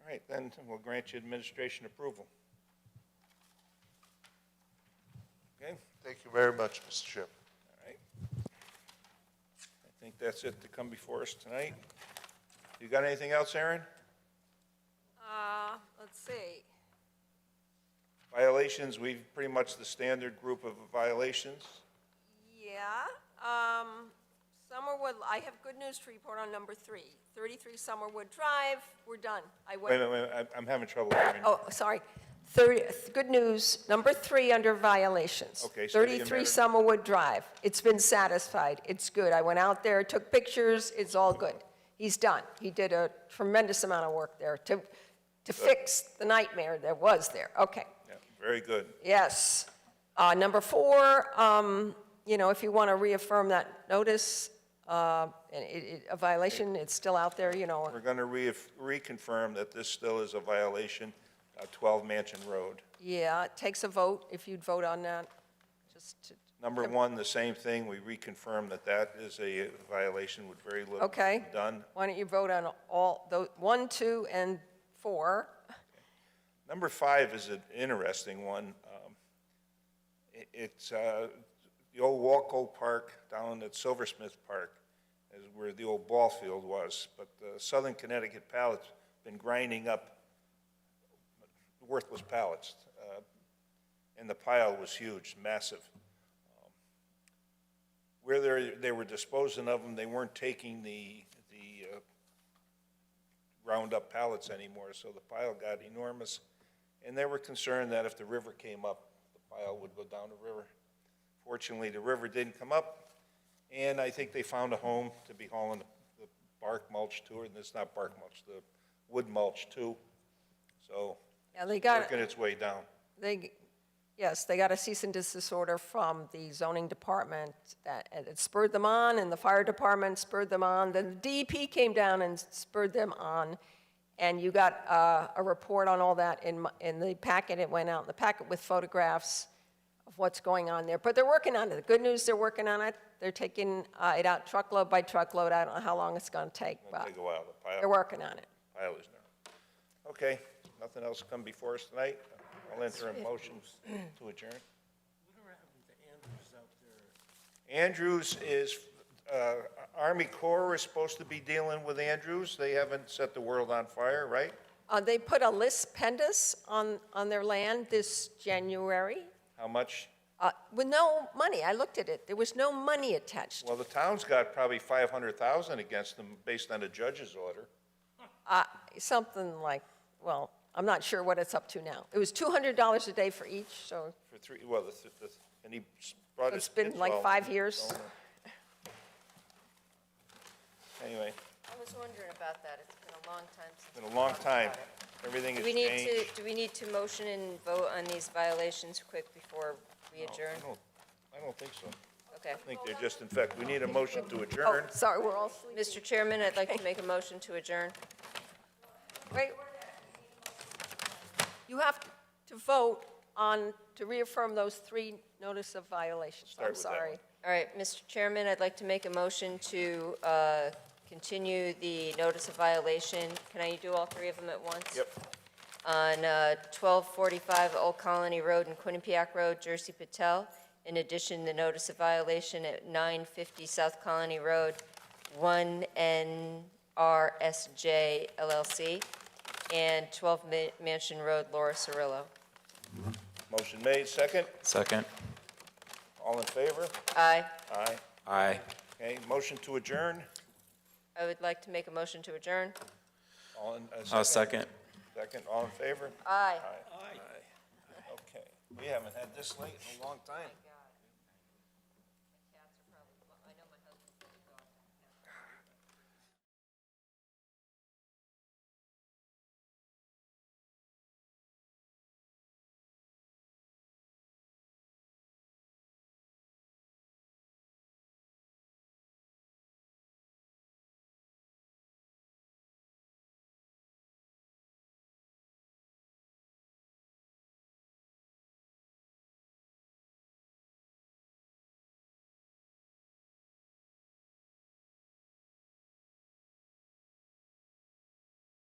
All right, then we'll grant you administration approval. Okay, all Thank you very much, Mr. Chairman. right. I think that's it to come before us tonight. You got anything else, Aaron? Uh, let's see. Violations, we've pretty much the standard group of violations. Yeah, um, Summerwood, I have good news to report on number three. Thirty-three Summerwood Drive, we're done. I Wait, a went, minute, wait, a minute, I'm- I'm having trouble hearing. oh, sorry. Thirty, good news, number three under violations. Okay, so it doesn't Thirty-three matter. Summerwood Drive. It's been satisfied. It's good. I went out there, took pictures. It's all good. He's done. He did a tremendous amount of work there to, Uh, to fix the nightmare that was there. Okay. Yeah, Very good. Yes. Uh, Number four, um, you know, if you want to reaffirm that notice, uh, and it- it- a violation, it's still out there, you know. We're going to re, reconfirm that this still is a violation of 12 Mansion Road. Yeah, it takes a vote, if you'd vote on that, just to, Number one, the same thing, we reconfirm that that is a violation with very little okay? done. Why don't you vote on all, tho- one, two, and four? Number five is an interesting one. Um, i- It's uh, the old Walco Park down at Silversmith Park is where the old ball field was, but the Southern Connecticut pallets been grinding up worthless pallets, uh, and the pile was huge, massive. Um, Where they they were disposing of them, they weren't taking the, the uh, round up pallets anymore, so the pile got enormous. And they were concerned that if the river came up, the pile would go down the river. Fortunately, the river didn't come up, and I think they found a home to be hauling the bark mulch to, and it's not bark mulch, the wood mulch too. So, Yeah, they got, working its way down. they, yes, they got a cease and desist order from the zoning department that and it spurred them on, and the fire department spurred them on, then the DEP came down and spurred them on, and you got uh, a report on all that in, my- in the packet, it went out in the packet with photographs of what's going on there, but they're working on it. The good news, they're working on it, they're taking uh, it out truckload by truckload, I don't know how long it's gonna take, It'll but take a while, the pile. they're working on it. Pile is there. Okay, nothing else come before us tonight? I'll enter a motion to adjourn. Andrews is, uh, Army Corps is supposed to be dealing with Andrews. They haven't set the world on fire, right? Uh, They put a lis pendus on, on their land this January, How much? uh, with no money. I looked at it, there was no money attached. Well, the town's got probably 500,000 against them based on a judge's order. Uh, Something like, well, I'm not sure what it's up to now. It was $200 a day for each, so For three, well, the, the, and he brought his. It's been kids like all- five years. Anyway, I was wondering about that. It's been a long time since. it's been we a long talked time. about it. Everything Do has we need to, changed. do we need to motion and vote on these violations quick before we No, adjourn? I don't, I don't think so. Okay. I think they're just, in fact, we need a motion to Oh, adjourn. sorry, we're all sleeping. Mr. Chairman, I'd like to make a motion to adjourn. Wait. You have to vote on, to reaffirm those three notice of violations. Start I'm with that sorry. one. All right, Mr. Chairman, I'd like to make a motion to uh, continue the notice of violation. Can I do all three of them at once? Yep. on uh, 1245 Old Colony Road and Quinnipiac Road, Jersey Patel. In addition, the notice of violation at 950 South Colony Road, 1NRSJ LLC, and 12 Ma- Mansion Road, Laura Cirillo. Motion made, second. Second. All in favor? Aye. Aye. Aye. Okay, motion to adjourn. I would like to make a motion to adjourn. All in, uh, Uh, second. Second, all in favor? Aye. Aye. Okay. We haven't had this late in a long time.